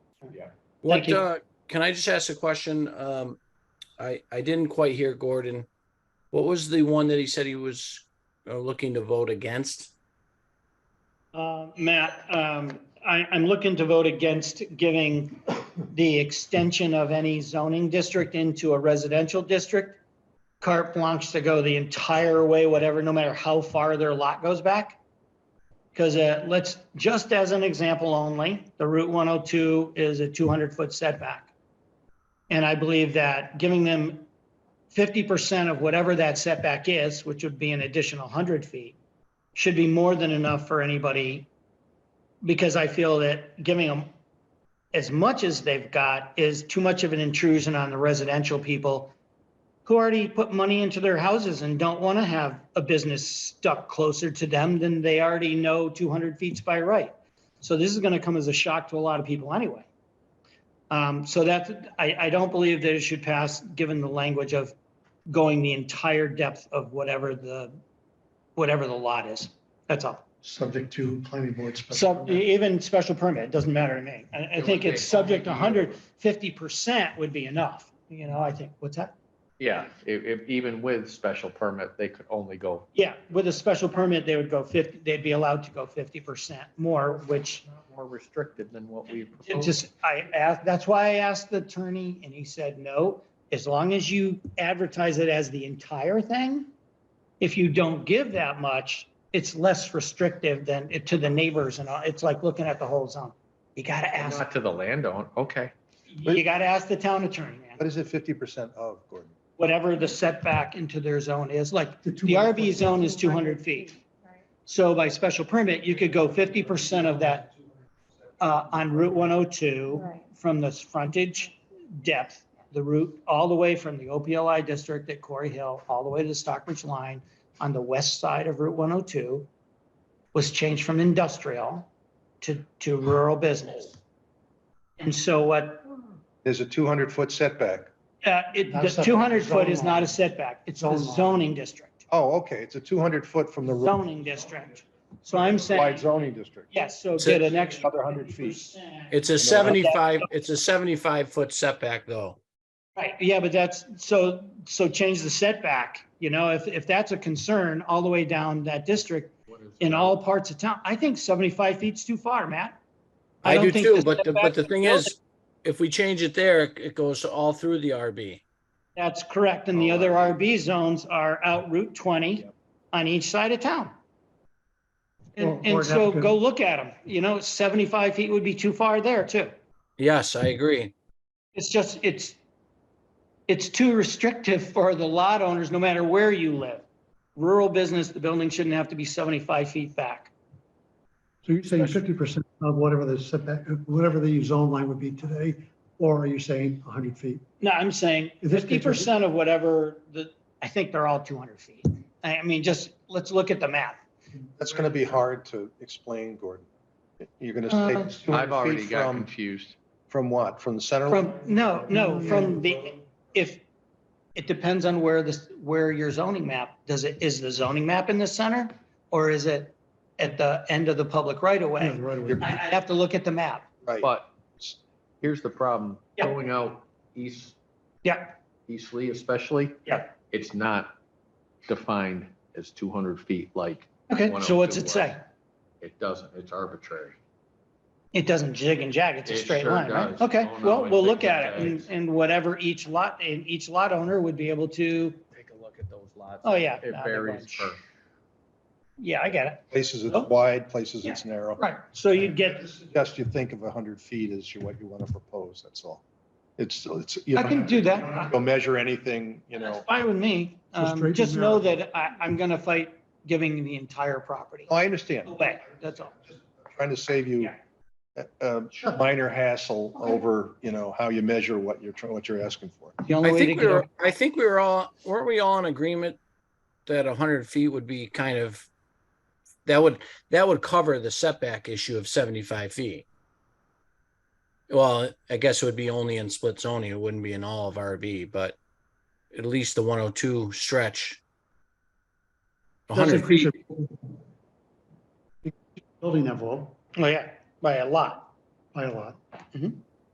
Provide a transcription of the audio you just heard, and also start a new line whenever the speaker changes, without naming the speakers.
What,
you.
uh, can I just ask a question? Um, I, I didn't quite hear Gordon. What was the one that he said he was uh, looking to vote against?
Uh, Matt, um, I, I'm looking to vote against giving the extension of any zoning district into a residential district. Carte blanche to go the entire way, whatever, no matter how far their lot goes back. Because let's, just as an example only, the Route 102 is a 200-foot setback. And I believe that giving them 50% of whatever that setback is, which would be an additional 100 feet, should be more than enough for anybody because I feel that giving them as much as they've got is too much of an intrusion on the residential people who already put money into their houses and don't want to have a business stuck closer to them than they already know 200 feet by right. So this is going to come as a shock to a lot of people anyway. Um, so that's, I, I don't believe that it should pass, given the language of going the entire depth of whatever the whatever the lot is. That's all.
subject to planning board. special
So
permit.
even special permit, it doesn't matter to me. I, I
It
think
would
it's
be-
subject to hundred fifty percent would be enough. You know, I think, what's that?
Yeah, if, if, even with special permit, they could only go,
Yeah, with a special permit, they would go fifty, they'd be allowed to go fifty percent more, which
more restricted than what we
it
proposed.
just, I asked, that's why I asked the attorney and he said, no, as long as you advertise it as the entire thing, if you don't give that much, it's less restrictive than to the neighbors and all. It's like looking at the whole zone. You gotta ask.
Not to the landowner, okay.
You gotta ask the town attorney,
What
man,
is it fifty percent of, Oh, Gordon?
whatever the setback into their zone is, like, the
200
RV zone is two hundred feet. So by special permit, you could go fifty percent of that, uh, on Route one oh two
Right.
from the frontage depth, the route, all the way from the OPLI district at Corey Hill, all the way to the Stockbridge line on the west side of Route one oh two was changed from industrial to, to rural business. And so what
There's a two hundred foot setback.
Uh, it,
Not
the
a setback,
two hundred foot is
zone
not
line.
a setback, it's a
Zone line.
zoning district,
Oh, okay, it's a two hundred foot from the. road.
zoning district. So I'm
Wide
saying,
zoning district.
yes, so
So-
get an extra.
Another 100 feet.
It's a seventy-five, it's a seventy-five foot setback though.
Right, yeah, but that's, so, so change the setback, you know, if, if that's a concern all the way down that district in all parts of town, I think seventy-five feet's too far, Matt.
I
don't
do
think
too,
the
but, the-
setback-
but the thing is, if we change it there, it- it goes all through the RB.
That's correct, and the
Oh,
other
I-
RB zones are out Route twenty
Yep.
on each side of town.
Or-
And,
or
and so
that could-
go look at them, you know, seventy-five feet would be too far there too.
Yes,
Hmm.
I agree.
It's just, it's, it's too restrictive for the lot owners, no matter where you live. Rural business, the building shouldn't have to be seventy-five feet back.
So you're saying fifty percent of whatever the setback, whatever the zone line would be today, or are you saying hundred feet?
No, I'm saying
Is this
fifty percent of whatever the, I think they're all two hundred feet. I, I mean, just, let's look at the map.
That's gonna be hard to explain, Gordon. You're gonna take
Uh,
two
I've
hundred
already
feet
got
from,
confused.
from what? From the center? line?
From, no, no, from the, if, it depends on where this, where your zoning map, does it, is the zoning map in the center? Or is it at the end of the public right of
Yeah,
way?
right away.
I, I have to look at the map.
Right.
But here's the problem,
Yeah.
going out east,
Yeah,
East Lee especially.
Yeah.
It's not defined as two hundred feet, like,
okay, so what's
102
it say?
it doesn't, it's arbitrary.
It doesn't jig and jag, it's a
It
straight
sure
line, right?
does.
Okay,
Oh, no,
well,
it
we'll look
jigs
at
and
it and,
jags.
and whatever each lot, and each lot owner would be able to,
Take a look at those lots.
Oh, yeah.
It
Not a
varies
bunch.
per,
yeah, I get it.
Places it's
Oh.
wide, places it's narrow.
Right, so you'd get,
Just you think of hundred feet as you- what you want to propose, that's all. It's, it's, you
I can
don't
do that.
go measure anything, you
That's
know.
fine with me.
So
Um,
straight
Just
and
know
narrow.
that I, I'm gonna fight giving the entire property
Oh, I understand.
away, that's all.
Trying to save you
Yeah.
a- a minor hassle over, you know, how you measure what you're, tr- what you're asking for.
The only
I
way to
think we
get,
were,
a-
I think we were all, weren't we all in agreement that hundred feet would be kind of, that would, that would cover the setback issue of seventy-five feet? Well, I guess it would be only in split zoning. It wouldn't be in all of RB, but at least the one oh two stretch.
That's
hundred
increase
feet,
your Building envelope
oh yeah, by a lot.
by a lot.
Mhm.